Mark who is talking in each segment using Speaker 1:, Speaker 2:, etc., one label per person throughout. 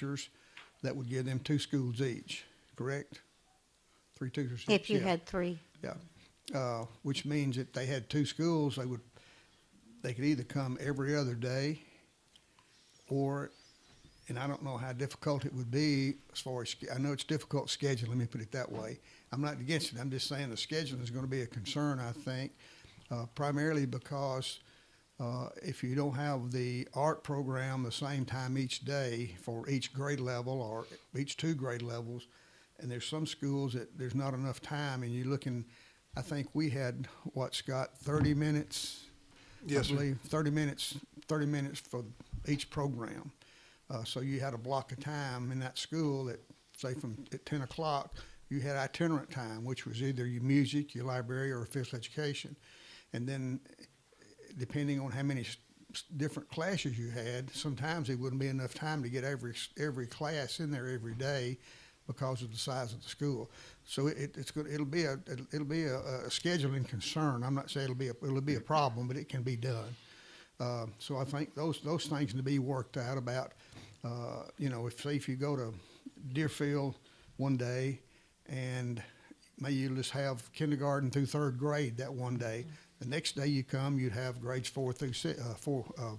Speaker 1: teachers, that would give them two schools each, correct? Three teachers.
Speaker 2: If
Speaker 1: each,
Speaker 2: you
Speaker 1: yeah.
Speaker 2: had three,
Speaker 1: Yeah, uh, which means if they had two schools, they would, they could either come every other day, or, and I don't know how difficult it would be as far as, I know it's difficult scheduling, let me put it that way. I'm not against it, I'm just saying the scheduling is gonna be a concern, I think, uh, primarily because, uh, if you don't have the art program the same time each day for each grade level or each two grade levels, and there's some schools that there's not enough time, and you're looking. I think we had what Scott, 30 minutes. I
Speaker 3: Yes, sir.
Speaker 1: believe 30 minutes, 30 minutes for each program. Uh, so you had a block of time in that school that, say, from at 10 o'clock, you had itinerant time, which was either your music, your library, or physical education, and then depending on how many s- s- different classes you had, sometimes it wouldn't be enough time to get every s- every class in there every day because of the size of the school. So it, it's good. It'll be a it'll, it'll be a, a scheduling concern. I'm not saying it'll be a, it'll be a problem, but it can be done. Uh, so I think those those things need to be worked out about. Uh, you know, if say if you go to Deerfield one day, and maybe you just have kindergarten through third grade that one day. The next day you come, you'd have grades four through six, uh, four, uh,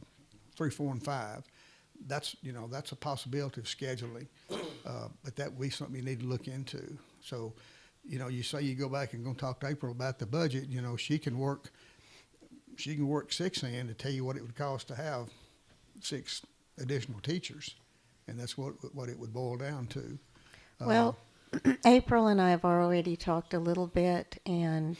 Speaker 1: three, four, and five. That's you know that's a possibility of scheduling, uh, but that would be something you need to look into. So, you know, you say you go back and gonna talk to April about the budget. You know, she can work she can work six in to tell you what it would cost to have six additional teachers, and that's what what it would boil down to. Uh,
Speaker 2: well, April and I have already talked a little bit, and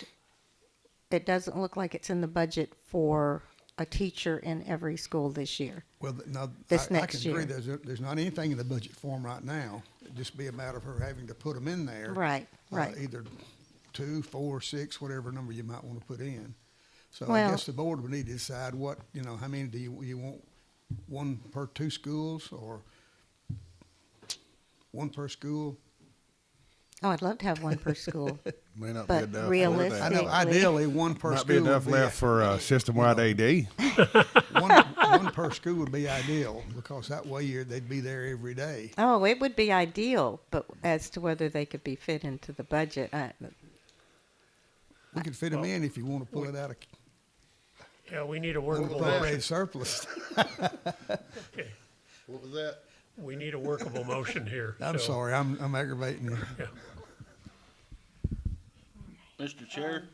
Speaker 2: it doesn't look like it's in the budget for a teacher in every school this year.
Speaker 1: Well, th- now
Speaker 2: This
Speaker 1: I,
Speaker 2: next
Speaker 1: I can agree.
Speaker 2: year.
Speaker 1: There's there's not anything in the budget form right now. It'd just be a matter of her having to put them in there.
Speaker 2: Right,
Speaker 1: uh,
Speaker 2: right.
Speaker 1: either two, four, six, whatever number you might want to put in. So I
Speaker 2: Well-
Speaker 1: guess the board would need to decide what you know. How many do you you want? One per two schools or one per school?
Speaker 2: Oh, I'd love to have one per school.
Speaker 3: May not
Speaker 2: But
Speaker 3: be enough.
Speaker 2: realistic-
Speaker 3: for
Speaker 1: I
Speaker 3: that.
Speaker 1: know
Speaker 2: Technically.
Speaker 1: ideally one per
Speaker 3: Might be
Speaker 1: school. would
Speaker 3: enough
Speaker 1: be-
Speaker 3: left for uh, system-wide AD.
Speaker 1: one, one per school would be ideal because that way you're, they'd be there every day.
Speaker 2: oh, it would be ideal, but as to whether they could be fit into the budget, I,
Speaker 1: We could fit them in if you want to pull it out of
Speaker 4: Yeah, we need a workable
Speaker 1: appropriated
Speaker 4: motion.
Speaker 1: surplus.
Speaker 4: Okay.
Speaker 5: What was that?
Speaker 4: We need a workable motion here.
Speaker 1: I'm
Speaker 4: so-
Speaker 1: sorry, I'm, I'm aggravating you.
Speaker 5: Mr. Chair,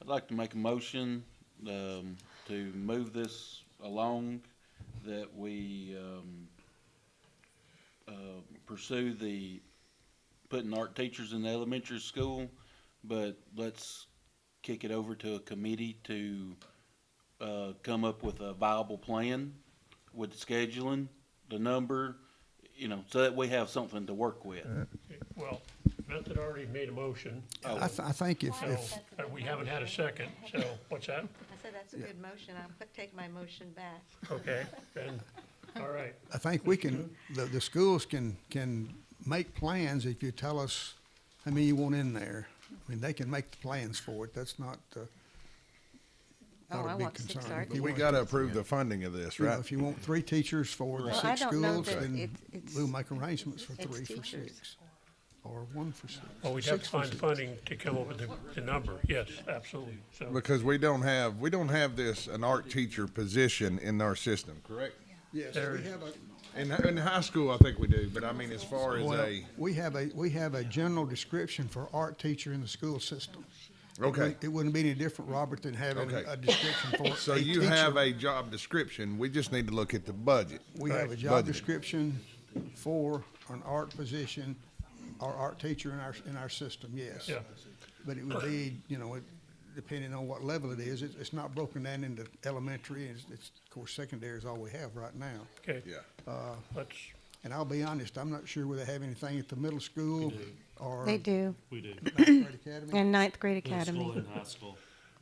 Speaker 5: I'd like to make a motion, um, to move this along, that we, um, uh, pursue the, putting art teachers in the elementary school, but let's kick it over to a committee to, uh, come up with a viable plan with the scheduling, the number, you know, so that we have something to work with.
Speaker 4: Well, Method already made a motion,
Speaker 1: I, th- I think if,
Speaker 4: so
Speaker 1: if,
Speaker 4: uh, we haven't had a second, so what's that?
Speaker 6: I said, that's a good motion, I'll put- take my motion back.
Speaker 4: Okay, then, all right.
Speaker 1: I think we can, the, the schools can, can make plans if you tell us how many you want in there. I mean, they can make the plans for it, that's not, uh,
Speaker 2: Oh,
Speaker 1: not
Speaker 2: I
Speaker 1: a big
Speaker 2: want six
Speaker 1: concern.
Speaker 2: art
Speaker 1: If you
Speaker 3: We
Speaker 1: want-
Speaker 3: got to approve the funding of this,
Speaker 1: you know,
Speaker 3: right?
Speaker 1: If you want three teachers for the
Speaker 2: Well, I
Speaker 1: six
Speaker 2: don't know
Speaker 1: schools,
Speaker 2: that
Speaker 1: then
Speaker 2: it's- it's-
Speaker 1: we'll make arrangements for
Speaker 2: it's
Speaker 1: three for
Speaker 2: teachers.
Speaker 1: six. Or one for six.
Speaker 4: Well, Oh, we'd have to
Speaker 1: six for
Speaker 4: find
Speaker 1: six.
Speaker 4: funding to come up with the, the number, yes, absolutely, so.
Speaker 3: Because we don't have, we don't have this, an art teacher position in our system, correct?
Speaker 1: Yes,
Speaker 4: There
Speaker 1: we
Speaker 4: is-
Speaker 1: have a,
Speaker 3: In, in high school, I think we do, but I mean, as far as
Speaker 1: Well,
Speaker 3: a,
Speaker 1: we have a, we have a general description for art teacher in the school system.
Speaker 3: okay.
Speaker 1: It wouldn't be any different, Robert, than having
Speaker 3: Okay.
Speaker 1: a description for
Speaker 3: So
Speaker 1: a
Speaker 3: you have
Speaker 1: teacher.
Speaker 3: a job description, we just need to look at the budget.
Speaker 1: We have a
Speaker 3: Budget.
Speaker 1: job description for an art position or art teacher in our, in our system, yes.
Speaker 4: Yeah.
Speaker 1: But it would be, you know, it- depending on what level it is, it's, it's not broken down into elementary, it's, it's, of course, secondary is all we have right now.
Speaker 4: Okay,
Speaker 3: Yeah.
Speaker 4: let's,
Speaker 1: And I'll be honest, I'm not sure whether they have anything at the middle school or.
Speaker 2: they do.
Speaker 7: We do.
Speaker 1: Mountain Grade Academy.
Speaker 2: And ninth grade
Speaker 7: Middle
Speaker 2: academy.
Speaker 7: school and high school.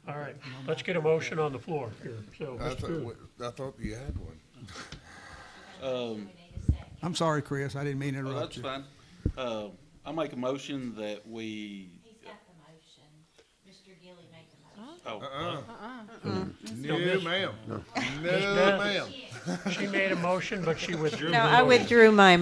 Speaker 4: all right, let's get a motion on the floor here, so.
Speaker 3: I
Speaker 4: Mr.
Speaker 3: thought, I thought you had one.
Speaker 1: I'm sorry, Chris, I didn't mean to
Speaker 5: Oh,
Speaker 1: interrupt
Speaker 5: that's
Speaker 1: you.
Speaker 5: fine. Uh, I make a motion that we,
Speaker 8: He's got the motion. Mr. Gilly made the motion.
Speaker 3: No, ma'am. No,
Speaker 4: Miss Beth.
Speaker 3: ma'am.
Speaker 4: She made a motion, but she withdrew.
Speaker 2: No,
Speaker 4: her
Speaker 2: I
Speaker 4: motion.
Speaker 2: withdrew my